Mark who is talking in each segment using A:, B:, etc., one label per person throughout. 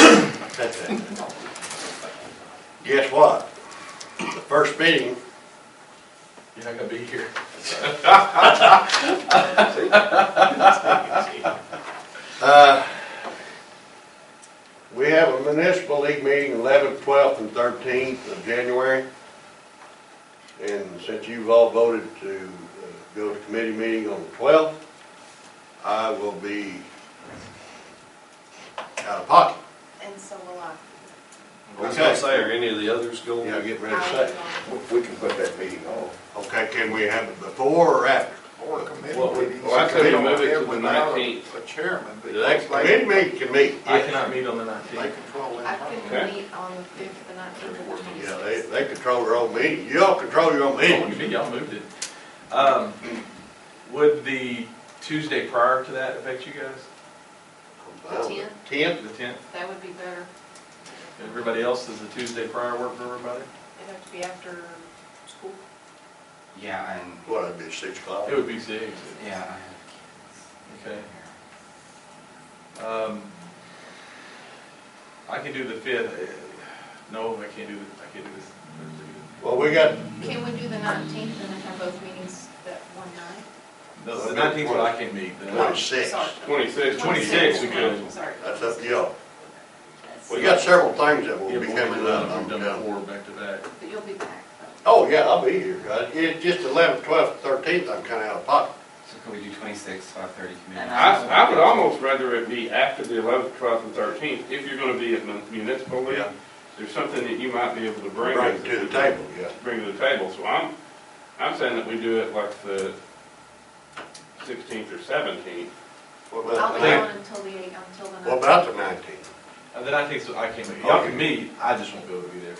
A: That's it. Guess what? The first meeting,
B: You're not gonna be here.
A: uh, we have a municipal league meeting eleventh, twelfth, and thirteenth of January. And since you've all voted to uh, go to committee meeting on the twelfth, I will be out of pocket.
C: And so will I.
D: I was gonna say, are any of the others
A: You
D: going?
A: know, get ready to
C: I
A: say.
C: will.
E: We can put that meeting on.
A: Okay, can we have it before or after?
F: Or a committee
B: Well, we-
F: meeting.
B: well, I
A: could
B: move it to the
F: Without a-
B: 19th.
F: A chairman,
A: The next
F: because
A: committee
F: they,
A: meeting can meet.
B: I cannot meet on the
F: they
B: nineteenth.
F: control
C: I
F: that.
C: couldn't meet on the fifth, the nineteenth, or the
A: Yeah,
C: twenty-sixth.
A: they, they control their own meeting. Y'all control your own
B: Oh,
A: meeting.
B: you mean, y'all moved it. Um, would the Tuesday prior to that affect you guys?
C: Ten.
A: Ten?
B: The tenth?
C: That would be better.
B: Everybody else, does the Tuesday prior work for everybody?
C: It'd have to be after school.
G: Yeah, and,
A: What, that'd be six o'clock?
B: It would be six.
G: yeah, I have
B: Okay.
G: kids here.
B: Um, I can do the fifth. No, I can't do the, I can't do this Thursday.
A: Well, we got,
C: Can we do the nineteenth and then have both meetings that one night?
B: No, The nineteenth, well, I can meet. The-
A: Twenty. 26.
C: Sorry.
D: Twenty-six.
B: 26, we could.
C: Sorry.
A: that's up to y'all.
C: That's-
A: We got several things that
B: Yeah,
A: will
B: but
A: be
B: we've
A: coming up.
B: done-
A: I'm
B: We've done
A: telling you.
B: four back to back.
C: But you'll be back though.
A: Oh, yeah, I'll be here, guys. It's just eleventh, twelfth, thirteenth, I'm kinda out of pocket.
G: So could we do twenty-six, five-thirty community?
C: And
D: I, I would almost rather it be after the eleventh, twelfth, and thirteenth, if you're gonna be at mun- municipal league.
A: Yeah.
D: There's something that you might be able to bring.
A: Bring it to the table, yeah.
D: Bring to the table, so I'm, I'm saying that we do it like the sixteenth or seventeenth.
A: What
C: I'll
A: about the
C: be
A: nineteenth?
C: on until the eight, until the
A: What
C: nineteenth.
A: about the nineteenth?
B: And then I think, so I can meet. Y'all can meet, I just won't be able to be there.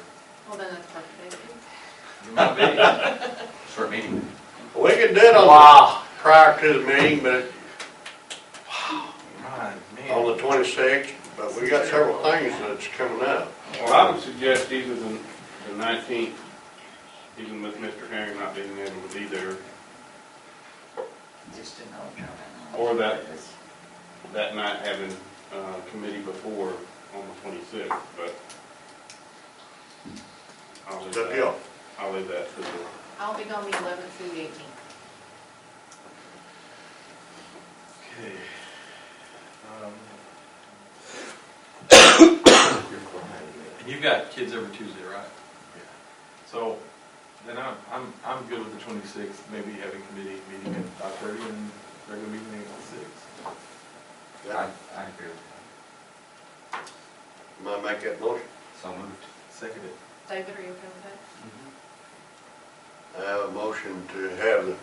C: Well, then that's perfect. Thank
B: You might be. Short meeting.
A: We can do it on, prior to the meeting, but
B: Right,
A: on
B: man.
A: the twenty-sixth, but we got several things that's coming up.
D: Well, I would suggest either the, the nineteenth, even with Mr. Herring not being able to be there,
G: Just to know.
D: Or that- that night having, uh, committee before on the twenty-sixth, but. I'll leave
A: It's up to
D: that,
A: y'all.
D: I'll leave that to the,
C: you. I'll be gone the eleventh through the eighteenth.
B: Okay. Um, And you've got kids every Tuesday, right? Yeah. So, then I'm, I'm, I'm good with the twenty-sixth, maybe having committee meeting at five thirty and regular meeting at six.
G: I, I agree with that.
A: Am I make that motion?
G: So moved.
B: Second it.
C: David, are you okay with
A: I have a motion to have the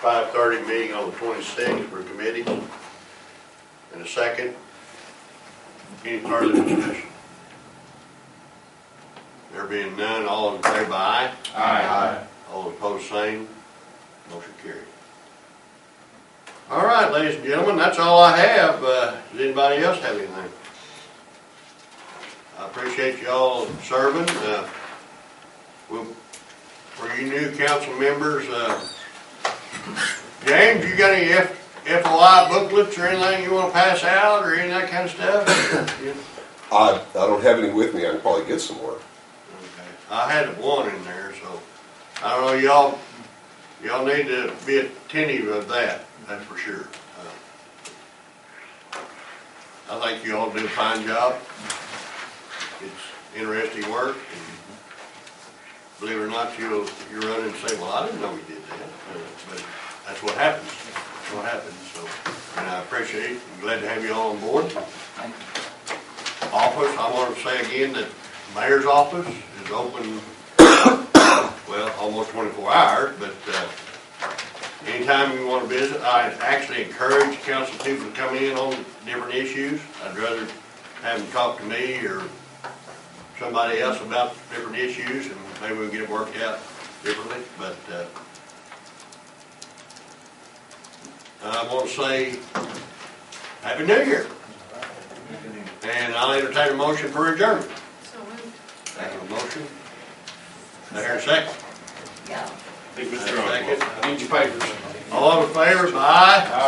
A: five-thirty meeting on the twenty-sixth for committee. And a second. Any further discussion? There being none, all in favor, aye.
C: Aye.
A: All opposed, same. Motion carried. All right, ladies and gentlemen, that's all I have. Uh, Does anybody else have anything? I appreciate y'all serving. Uh, we'll- For you new council members, uh, James, you got any F- FOI booklets or anything you want to pass out or any of that kind of stuff? Yeah.
E: I, I don't have any with me, I can probably get some more.
A: Okay. I had one in there, so, I don't know, y'all, y'all need to be attentive of that, that's for sure. Uh, I think you all do a fine job. It's interesting work, and believe it or not, you'll, you run in and say, well, I didn't know we did that, Uh, but that's what happens, that's what happens, so, and I appreciate it, I'm glad to have you all on board
G: Thank you.
A: office, I want to say again that mayor's office is open, well, almost twenty-four hours, but, uh, anytime you want to visit, I actually encourage council people to come in on different issues. I'd rather have them talk to me or somebody else about different issues and maybe we can get it worked out differently, but, uh, I want to say, Happy New Year. And I'll entertain a motion for adjournment.
C: that? So moved.
A: I have a motion. I hear a second.
C: Yeah.
D: I think
A: I
D: Mr.
A: hear a
D: Osborne.
A: second.
D: Need your papers.
A: All in favor, say aye.